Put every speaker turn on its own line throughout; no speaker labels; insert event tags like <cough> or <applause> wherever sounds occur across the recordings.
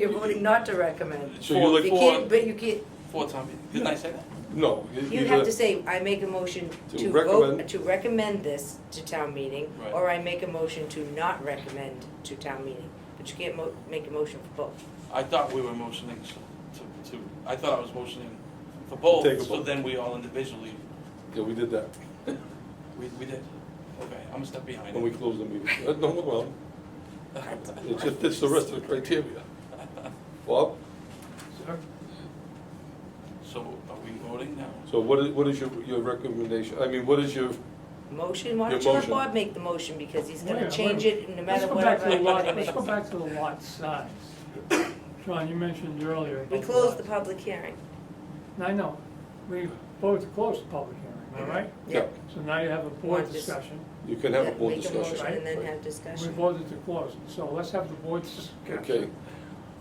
You're voting not to recommend.
So you look
You
for,
can't, but you can't,
four times, didn't I say that?
No.
you have to say, I make a motion
To
to vote,
recommend.
to recommend this to town meeting,
Right.
or I make a motion to not recommend to town meeting. But you can't mo- make a motion for both.
I thought we were motioning to, to, I thought I was motioning for both,
Take a
so
vote.
then we all individually,
Yeah, we did that
we, we did. Okay, I'm a step behind
when we
it.
closed the meeting. Uh, No, well, it just fits the rest of the criteria. Bob,
<laughs> So are we voting now?
so what is, what is your, your recommendation? I mean, what is your,
Motion, why don't you
Your
let
motion.
Bob make the motion, because he's
Wait,
gonna
wait.
change it no
Let's
matter
go
what.
back to the
I
lot,
recommend.
let's go back to the lot size. John, you mentioned earlier.
We
about
closed the
lots.
public hearing.
I know, we voted to close the public hearing, all right?
yeah,
So now you have a board
Want dis-
discussion,
you can have a board
Make a motion
discussion.
and then
Right.
have
we
discussion.
voted to close it, so let's have the board discussion.
Okay,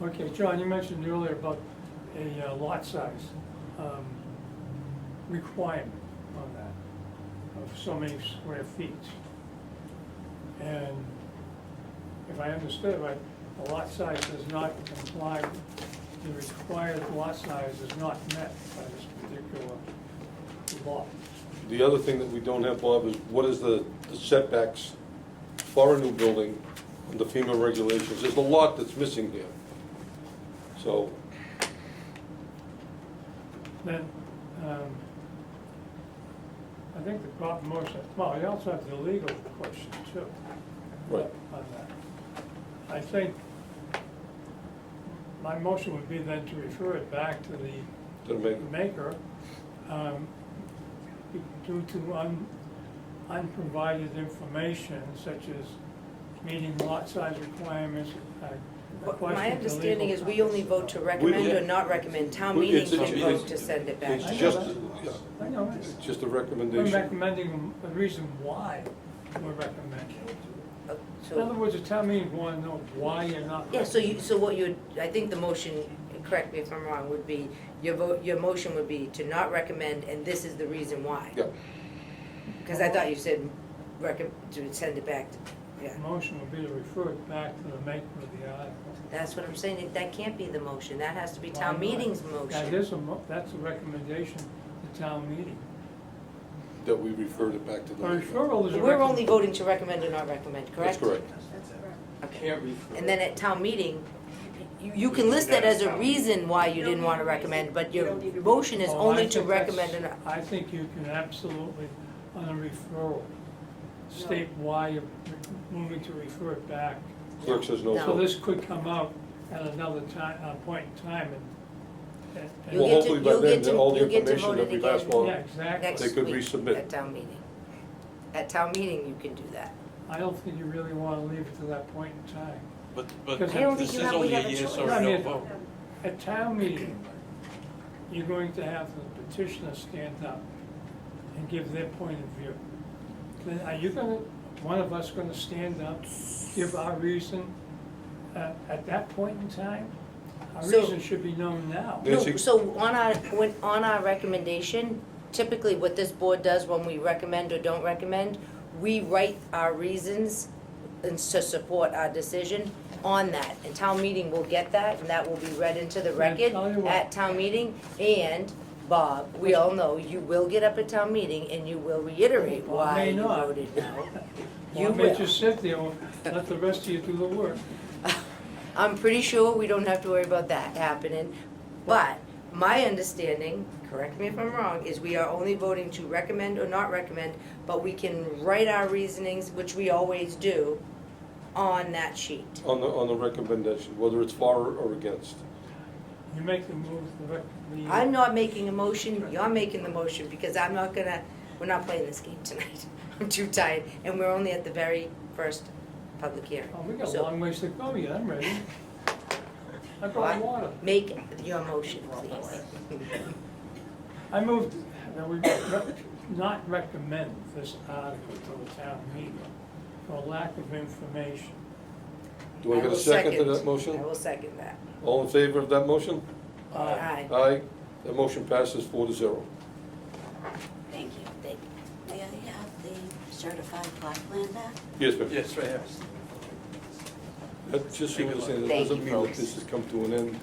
Okay, John, you mentioned earlier about a uh, lot size um, requirement on that, of so many square feet. And if I understood right, the lot size does not comply, the required lot size is not met by this particular law.
the other thing that we don't have, Bob, is what is the the setbacks for a new building under FEMA regulations? There's a lot that's missing here. So,
Then, um, I think the problem most, well, you also have the legal question too.
right,
on that. I think my motion would be then to refer it back to the
gonna make,
maker um, due to un- unprovided information such as meeting lot size requirements. uh,
But
questions
My
of
understanding
legal
is we only vote
comments
to
about-
recommend or
yeah.
not recommend. Town
We-
meeting
it's-
can
it's-
vote
it's-
to send it back.
it's
I know
just,
that.
yeah,
I know,
it's just a
we're
recommendation.
recommending the reason why we're recommending.
Uh,
In other
So,
words, the town meeting want to know why you're not.
yeah, so you, so what you, I think the motion, correct me if I'm wrong, would be, your vote, your motion would be to not recommend, and this is the reason why.
Yeah,
Because I thought you said recom, to send it back, to- yeah.
Motion would be to refer it back to the maker of the uh, article.
That's what I'm saying, that can't be the motion, that has to be town
Why not?
meeting's
That
motion.
is a, mo- that's a recommendation to town meeting.
that we referred it back to the.
A referral is a recommendation.
We're only voting to recommend or not recommend,
That's
correct?
correct.
Okay. And then at town meeting, you, you can list that as a reason why you didn't wanna recommend, but your motion
Oh,
is only to recommend or not.
I think you can absolutely, on a referral, state why you're moving to refer it back.
Clerk says no.
No.
So
vote.
this could come out at another time, uh point in time and. and- and-
You'll
Well,
get to-
hopefully by
you'll
then,
get to-
all the
you'll get to
information
vote
that
it
we've
again
asked for.
Yeah,
Next
They
exactly.
could
week
resubmit.
At town meeting. At town meeting, you can do that.
I don't think you really want to leave it to that point in time.
But, but
Because I don't
this
think you
is
have- we
only
have
a
a
yes
choice.
or
Yeah, I
no
mean-
vote.
At town meeting, you're going to have the petitioner stand up and give their point of view. Then are you gonna, one of us gonna stand up, give our reason, uh, at that point in time? Our
So-
reason should be known now.
Yeah.
No,
Nancy?
so on our, when, on our recommendation, typically what this board does when we recommend or don't recommend, we write our reasons and to support our decision on that. And town meeting will get that, and that will be read into the
Yeah,
record
tell you what.
at town meeting. And, Bob, we all know, you will get up at town meeting and you will reiterate
Bob
why
may
you
not.
voted no.
Well,
You
I may
will.
just sit there, and let the rest of you do the work.
I'm pretty sure we don't have to worry about that happening, but my understanding, correct me if I'm wrong, is we are only voting to recommend or not recommend, but we can write our reasonings, which we always do, on that sheet.
On the, on the recommendation, whether it's for or against.
You make the move, the rec, the.
I'm not making a motion, you're making the motion, because I'm not gonna, we're not playing this game tonight. <laughs> I'm too tired, and we're only at the very first public hearing.
Oh, we got a
So,
long ways to go yet, I'm ready. I
Why?
brought water.
Make your motion,
<laughs>
please.
I moved that we re- not recommend this article to the town meeting for lack of information.
Do I get
will
a second to that motion?
I will second that.
All in favor of that motion?
Uh,
Aye.
Aye. That motion passes four to zero.
Thank you.
Thank
May I have the certified plot plan back?
Yes, ma'am.
Yes, right here.
That- Just so you understand, it
Thank
doesn't
you,
mean that
folks.
this has come to an end.